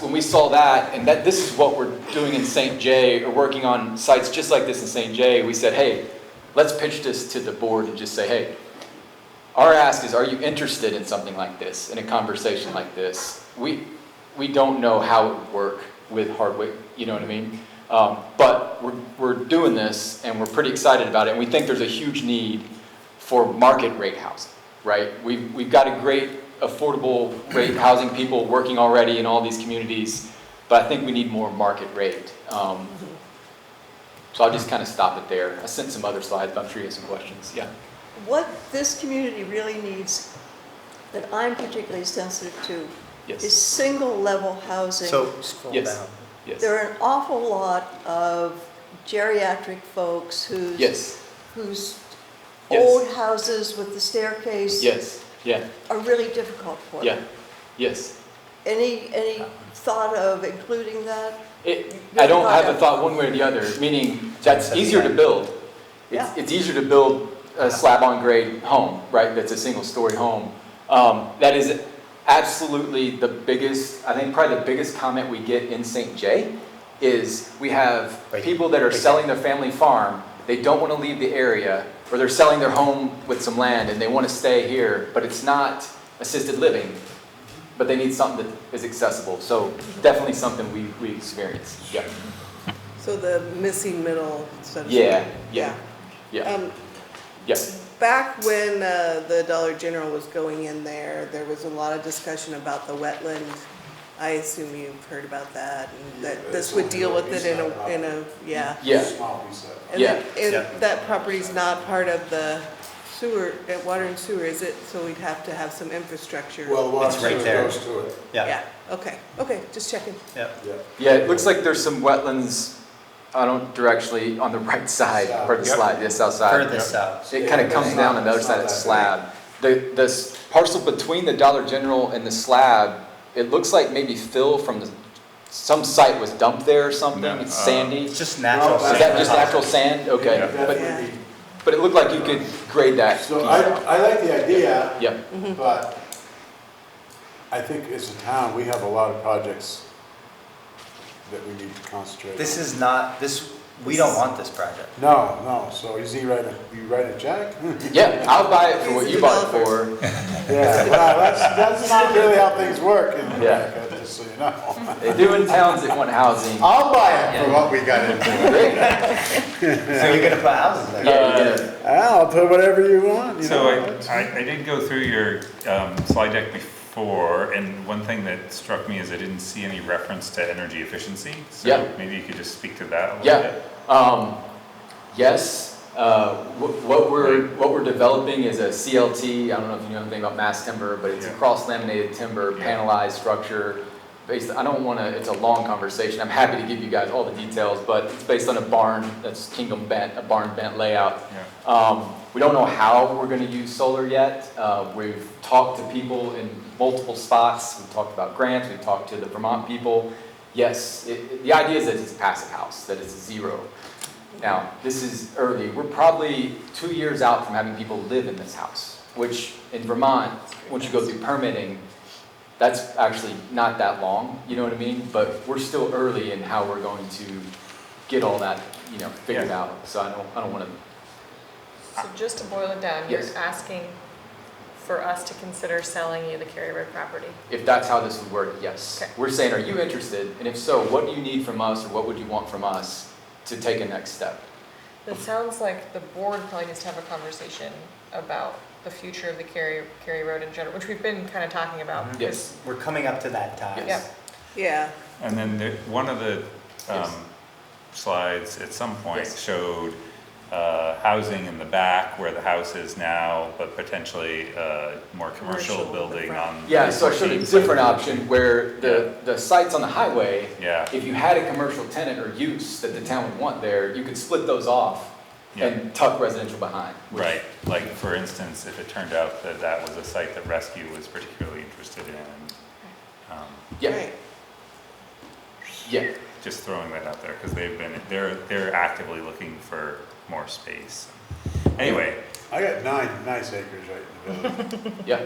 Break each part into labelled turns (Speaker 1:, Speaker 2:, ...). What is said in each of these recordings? Speaker 1: when we saw that, and that this is what we're doing in St. J, or working on sites just like this in St. J, we said, hey, let's pitch this to the board and just say, hey, our ask is, are you interested in something like this, in a conversation like this? We, we don't know how it would work with Hardwick, you know what I mean? Um, but we're, we're doing this and we're pretty excited about it, and we think there's a huge need for market rate housing, right? We've, we've got a great affordable rate housing people working already in all these communities, but I think we need more market rate. Um, so I'll just kind of stop it there. I sent some other slides, but I'm sure you have some questions, yeah.
Speaker 2: What this community really needs, that I'm particularly sensitive to, is
Speaker 1: Yes,
Speaker 2: single-level housing.
Speaker 3: So, scroll
Speaker 1: Yes.
Speaker 3: down.
Speaker 1: yes,
Speaker 2: There are an awful lot of geriatric folks whose.
Speaker 1: yes,
Speaker 2: Whose
Speaker 1: Yes.
Speaker 2: old houses with the staircase.
Speaker 1: yes, yeah,
Speaker 2: Are really difficult for them.
Speaker 1: yeah, yes.
Speaker 2: Any, any thought of including that?
Speaker 1: It, I don't have a thought one way or the other, meaning that's easier to build. It's,
Speaker 2: Yeah.
Speaker 1: it's easier to build a slab-on-grade home, right, that's a single-story home. Um, that is absolutely the biggest, I think probably the biggest comment we get in St. J is we have
Speaker 3: Right.
Speaker 1: people that are
Speaker 3: Right.
Speaker 1: selling their family farm, they don't want to leave the area, or they're selling their home with some land and they want to stay here, but it's not assisted living, but they need something that is accessible. So definitely something we, we experience, yeah,
Speaker 4: So the missing middle, so to
Speaker 1: Yeah,
Speaker 4: speak.
Speaker 1: yeah, yeah,
Speaker 4: Um,
Speaker 1: yeah,
Speaker 4: Back when uh, the Dollar General was going in there, there was a lot of discussion about the wetland. I assume you've heard about that, and that this would deal with it in a, in a, yeah.
Speaker 1: yeah.
Speaker 5: Small piece of-
Speaker 4: And
Speaker 1: Yeah.
Speaker 4: that-
Speaker 3: Yeah.
Speaker 4: And that property's not part of the sewer, uh, water and sewer, is it? So we'd have to have some infrastructure.
Speaker 5: Well, the
Speaker 3: It's
Speaker 5: water
Speaker 3: right
Speaker 5: sewer
Speaker 3: there.
Speaker 5: goes to it,
Speaker 3: Yeah,
Speaker 4: okay, okay, just checking.
Speaker 3: yeah.
Speaker 5: yeah.
Speaker 1: Yeah, it looks like there's some wetlands, I don't directionally, on the right side, or the
Speaker 5: Yep.
Speaker 1: slide, yes, outside.
Speaker 3: Furthest out.
Speaker 1: It kind of comes down and the other side, it's slab. The, the s- parcel between the Dollar General and the slab, it looks like maybe fill from the, some site was dumped there or something,
Speaker 6: No,
Speaker 1: it's
Speaker 6: uh,
Speaker 1: sandy.
Speaker 3: It's
Speaker 1: Is
Speaker 3: just natural.
Speaker 5: Well,
Speaker 1: that just natural sand? Okay,
Speaker 5: That
Speaker 1: but,
Speaker 5: would be-
Speaker 1: but it looked like you could grade that. piece
Speaker 5: So I,
Speaker 1: out.
Speaker 5: I like the idea,
Speaker 1: Yeah,
Speaker 5: but I think as a town, we have a lot of projects that we need to concentrate on.
Speaker 3: This is not, this, we don't want this project.
Speaker 5: No, no, so is he writing, you write a check?
Speaker 1: yeah, I'll buy it for what you bought it for.
Speaker 5: Yeah, well, that's, that's not really how things work in
Speaker 1: Yeah.
Speaker 5: America, just so you know.
Speaker 1: They do in towns that want housing.
Speaker 5: I'll buy it for what we got into.
Speaker 1: Great.
Speaker 3: So you're gonna put houses
Speaker 1: Yeah,
Speaker 3: there?
Speaker 1: yeah.
Speaker 5: I'll put whatever you want, you
Speaker 6: So
Speaker 5: know.
Speaker 6: I, I, I did go through your um, slide deck before, and one thing that struck me is I didn't see any reference to energy efficiency.
Speaker 1: Yeah.
Speaker 6: So maybe you could just speak to that a little
Speaker 1: Yeah,
Speaker 6: bit.
Speaker 1: um, yes, uh, wh- what we're, what we're developing is a CLT, I don't know if you know anything about mass timber, but it's a
Speaker 6: Yeah.
Speaker 1: cross laminated timber
Speaker 6: Yeah.
Speaker 1: panelized structure. Based, I don't wanna, it's a long conversation, I'm happy to give you guys all the details, but it's based on a barn, that's kingdom bent, a barn bent layout.
Speaker 6: Yeah.
Speaker 1: Um, we don't know how we're gonna use solar yet. Uh, we've talked to people in multiple spots. We've talked about grants, we've talked to the Vermont people. Yes, it, it- the idea is that it's a passive house, that it's zero. Now, this is early. We're probably two years out from having people live in this house, which in Vermont, once you go through permitting, that's actually not that long, you know what I mean? But we're still early in how we're going to get all that, you know, figured
Speaker 6: Yeah.
Speaker 1: out. So I don't, I don't wanna
Speaker 7: So just to boil it down, you're
Speaker 1: Yes.
Speaker 7: asking for us to consider selling you the Cary Road property?
Speaker 1: If that's how this would work, yes.
Speaker 7: Okay.
Speaker 1: We're saying, are you interested? And if so, what do you need from us or what would you want from us to take a next step?
Speaker 7: It sounds like the board probably needs to have a conversation about the future of the Cary, Cary Road in general, which we've been kind of talking about.
Speaker 1: Yes,
Speaker 3: We're coming up to that time.
Speaker 7: Yep.
Speaker 4: Yeah,
Speaker 6: And then the, one of the
Speaker 1: Yes.
Speaker 6: um, slides at some point
Speaker 1: Yes.
Speaker 6: showed uh, housing in the back where the house is now, but potentially a more commercial
Speaker 4: Commercial in the
Speaker 6: building
Speaker 4: front.
Speaker 6: on.
Speaker 1: yeah, so I showed a
Speaker 6: 14th.
Speaker 1: different option where the, the sites on the highway,
Speaker 6: Yeah,
Speaker 1: if you had a commercial tenant or use that the town would want there, you could split those off and tuck residential behind. which-
Speaker 6: right. Like, for instance, if it turned out that that was a site that Rescue was particularly interested in, um,
Speaker 1: Yeah,
Speaker 4: right.
Speaker 1: yeah,
Speaker 6: just throwing that out there, because they've been, they're, they're actively looking for more space. Anyway,
Speaker 5: I got nine nice acres right in the village.
Speaker 1: yeah.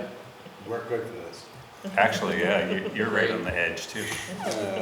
Speaker 5: We're good for this.
Speaker 6: Actually, yeah, you- you're right on the edge too.
Speaker 5: Uh,